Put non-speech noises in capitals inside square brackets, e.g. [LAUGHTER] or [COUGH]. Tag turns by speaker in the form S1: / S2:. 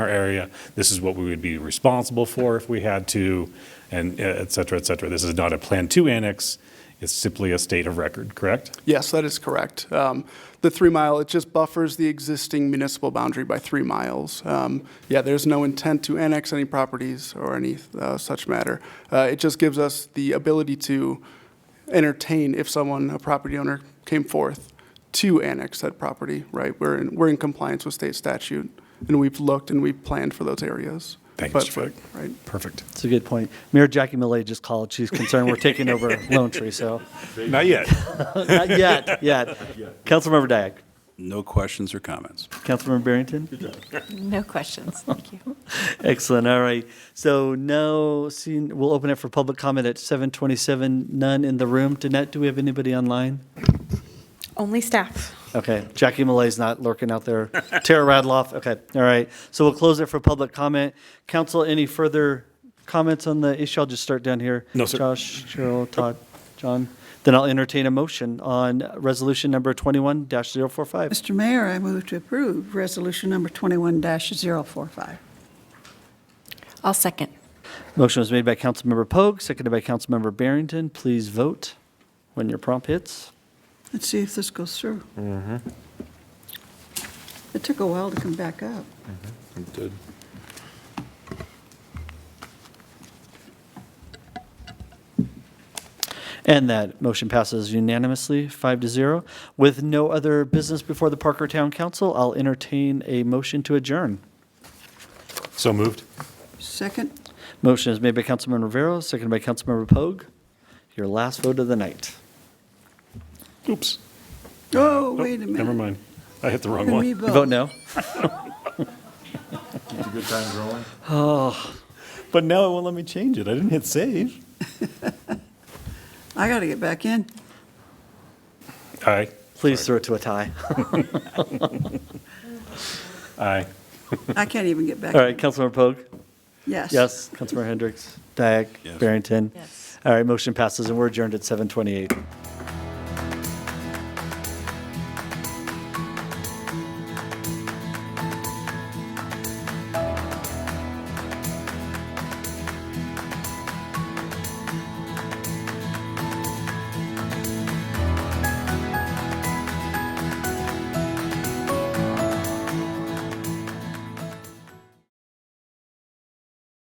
S1: our area. This is what we would be responsible for if we had to, and uh, et cetera, et cetera. This is not a Plan 2 annex. It's simply a state of record, correct?
S2: Yes, that is correct. Um, The three mile, it just buffers the existing municipal boundary by three miles. Um, Yeah, there's no intent to annex any properties or any uh, such matter. Uh, It just gives us the ability to entertain if someone, a property owner, came forth to annex that property, right? We're in, we're in compliance with state statute, and we've looked and we've planned for those areas.
S1: Thank you,
S2: But
S1: Mr.
S2: for-
S1: Fleck.
S2: Right.
S1: Perfect.
S3: It's a good point. Mayor Jackie Millay just called. She's concerned we're taking [LAUGHS] over Lone Tree, so
S1: Not yet.
S3: not yet, yet. Councilmember Diak.
S4: No questions or comments.
S3: Councilmember Barrington?
S5: No questions, thank you.
S3: [LAUGHS] Excellent, all right. So no, seeing, we'll open it for public comment at 7:27. None in the room. Danette, do we have anybody online?
S5: Only staff.
S3: Okay, Jackie Malay's not lurking out
S5: [LAUGHS]
S3: there. Tara Radloff, okay, all right. So we'll close it for public comment. Council, any further comments on the issue? I'll just start down here.
S1: No, sir.
S3: Josh, Cheryl, Todd, John. Then I'll entertain a motion on resolution number 21-045.
S6: Mr. Mayor, I move to approve Resolution Number 21-045.
S5: I'll second.
S3: Motion was made by Councilmember Pogue, seconded by Councilmember Barrington. Please vote when your prompt hits.
S6: Let's see if this goes through. It took a while to come back up.
S3: And that motion passes unanimously, five to zero. With no other business before the Parker Town Council, I'll entertain a motion to adjourn.
S1: So moved.
S6: Second?
S3: Motion is made by Councilman Rivera, seconded by Councilmember Pogue. Your last vote of the night.
S1: Oops.
S6: Oh,
S1: Nope,
S6: wait a minute.
S1: Never mind. I hit the wrong
S6: Can we
S1: one.
S3: You vote no?
S7: Good time growing.
S1: But now it won't let me change it. I didn't hit save.
S6: I got to get back in.
S1: Aye.
S3: Please throw it to a tie. [LAUGHS]
S1: Aye.
S6: I can't even get back.
S3: All right, Councilmember Pogue?
S6: Yes.
S3: Yes. Councilmember Hendricks? Dyak?
S4: Yes.
S3: Barrington?
S5: Yes.
S3: All right, motion passes, and we're adjourned at 7:28.